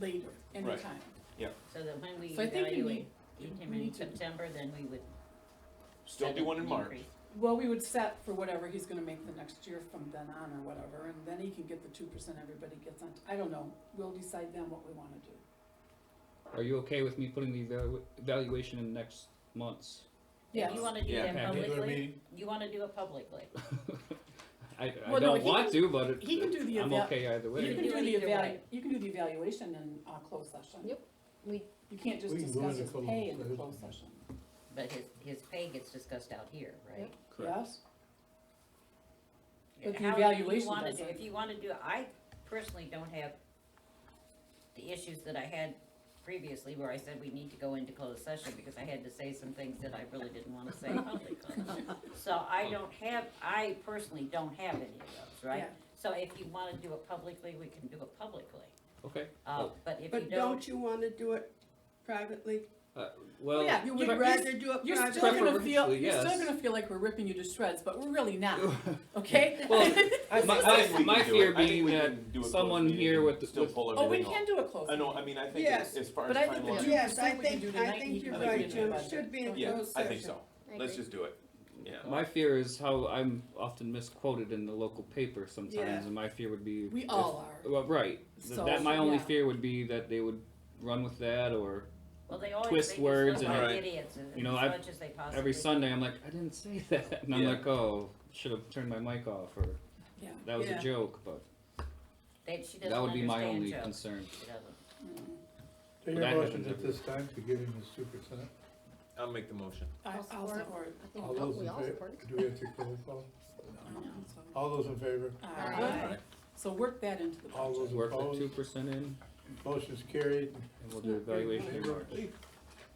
later, Right. anytime. So that when we So I think we need, evaluate him we in need to- September, then we would. Still set do one an in March. increase. well, we would set for whatever he's gonna make the next year from then on or whatever, and then he can get the two percent everybody gets on, I don't know, we'll decide then what we wanna do. Are you okay with me putting the evalu- evaluation in next month's? If Yes. you wanna do Yeah. that Okay. publicly, you wanna do it publicly. I, I Well, no, don't he want to, but it, he can do the I'm eva- okay either You We way. can can do do it the either evalu, way. you can do the evaluation in, uh, closed session. Yep, we- You can't just We can go discuss into his closed pay in the session. closed session, But his, his pay gets discussed out here, right? yes? But the However you evaluation wanna do- doesn't. If you wanna do, it, I personally don't have the issues that I had previously where I said we need to go into closed session because I had to say some things that I really didn't wanna say publicly. So I don't have, I personally don't have any of those, right? Yeah. So if you wanna do it publicly, we can do it publicly. Okay. Uh, but if you But don't you wanna do it privately? uh, Well, yeah, you You'd would- rather do it You're still privately? gonna feel, Preferably, you're still yes. gonna feel like we're ripping you to shreds, but we're really not, okay? Well, I My- think- my- I think we my can do fear it. I think being we that can do a closed someone meeting here and with the- Still with- pull Oh, we everything off. can do a closed I session. know, I mean, I think Yes. as as far as But I think the timeline, two Yes, I percent we can think- do I tonight, think you you're can do it right, in Jim. the It should be in budget. yeah, closed I think session. so. I Let's agree. just do it. Yeah. my fear is how I'm often misquoted in the local paper sometimes, Yeah. and my fear would be We if- all are. Well, right. Th- So, that my only yeah. fear would be that they would run with that, or Well, they always twist make us words look and- like Alright. idiots as, You know, as I've- much as they possibly every can. Sunday I'm like, I didn't say that, and I'm Yeah. like, oh, should have turned my mic off, or Yeah. that was Yeah. a joke, but They, she doesn't that would be my understand only jokes. concern. She doesn't. So That your happens motion at every- this time to give him his two percent? I'll make the motion. I, I'll I'll support. support. I All think those we in all favor, support it. do we have to roll call? I know, so- All those in favor, All right. So work that into the all budget. those Work the two opposed, percent in, and motion's carried. we'll do evaluation in March.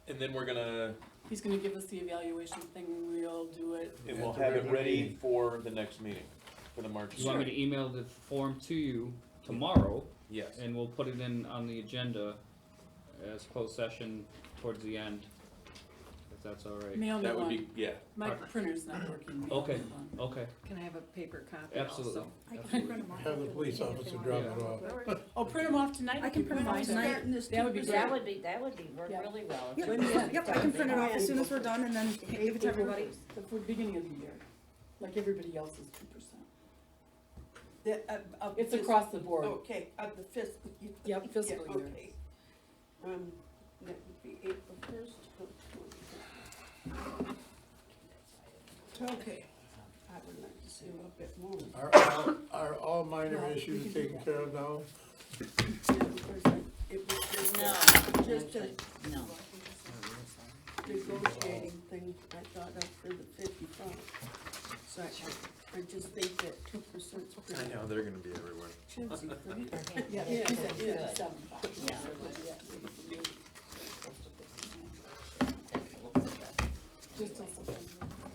And then we're gonna, He's gonna give us the evaluation thing, we'll do it. and At we'll the have it regular ready meeting. for the next meeting, for the March. You want me to email the form to you tomorrow, Yes. and we'll put it in on the agenda as closed session towards the end, if that's all right. Mail me That would one. be, yeah. My printer's not working. Mail me Okay. one. Okay, Can I have a paper copy absolutely. I can print absolutely. 'em off. Have the police officer drop it off. Oh, print them off tonight? I can print mine off tonight. starting this That would be two That great. percent. would be, that would be, work Yeah. really well. if Yeah. you Yeah. just Yep, Yep, I can did print it that. off as soon as we're done and then give it to everybody. The beginning of the year, like everybody else is two percent. The- of- of It's fis- across the board. Okay, of the fiscal. year. Yep, Yeah, fiscal year. okay. Um, that would be April first. Okay. I would like to see a little bit more. Are, all- are all minor Well, we can issues do taken that. care of now? It was just No, a just Just a, no. negotiating thing I thought of for the fifty-five. So I, I just think that two percent's pretty they're gonna be everywhere. chintzy for me. Yeah, Yeah, it's at yeah. 57.5. Yeah. That's a little bit better. Just till September.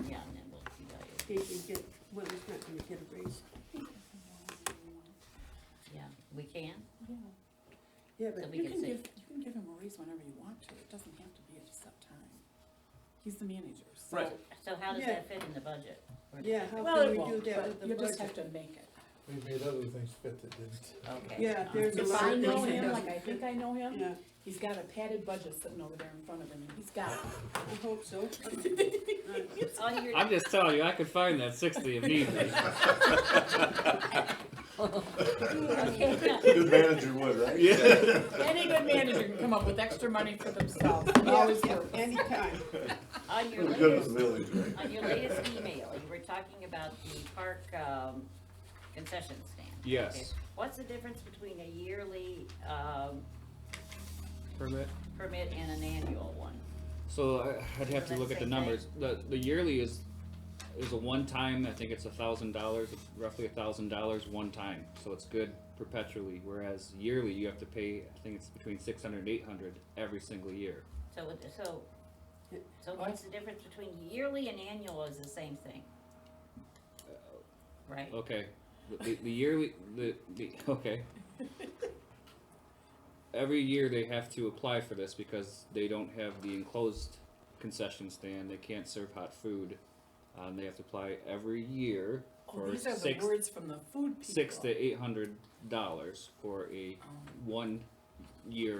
Yeah, and then we'll evaluate. He can get, well, he's not gonna get a raise. Yeah, we can, Yeah, so but we You can can see. give, you can give him a raise whenever you want to, it doesn't have to be at a set time. He's the manager, so. Right. So how does Yeah. that fit in the budget? Or- Yeah, how Well, can it we do won't, that but with the you just have budget? to make it. We made other things fit that didn't. Okay. Yeah, uh, there's a If lot I of know things he him, doesn't- like I think I know him, Yeah, he's got a padded budget sitting over there in front of him, and he's got it. I hope so. All your, I'm just telling you, I could find that sixty if need be. okay, Good manager would, right? Any good manager can come up with extra money for themselves, it always Yeah, works. Anytime. on your Good as latest, village, right? on your latest email, you were talking about the park, um, concession stand. Yes. Okay. What's the difference between a yearly, um, Permit? permit and an annual one? So I, I'd have to So look that's at same the numbers. The, the yearly is, is a one-time, I think it's a thousand dollars, roughly a thousand dollars one time. So it's good perpetually, whereas yearly you have to pay, I think it's between six hundred and eight hundred every single year. So, it- so, so what's the difference between yearly and annual is the same thing? Right? Okay, the- the, the yearly, the, the, okay. Every year they have to apply for this because they don't have the enclosed concession stand, they can't serve hot food. Um, they have to apply every year Oh, for these are the six, words from the food people. six to eight hundred dollars for a Um, one year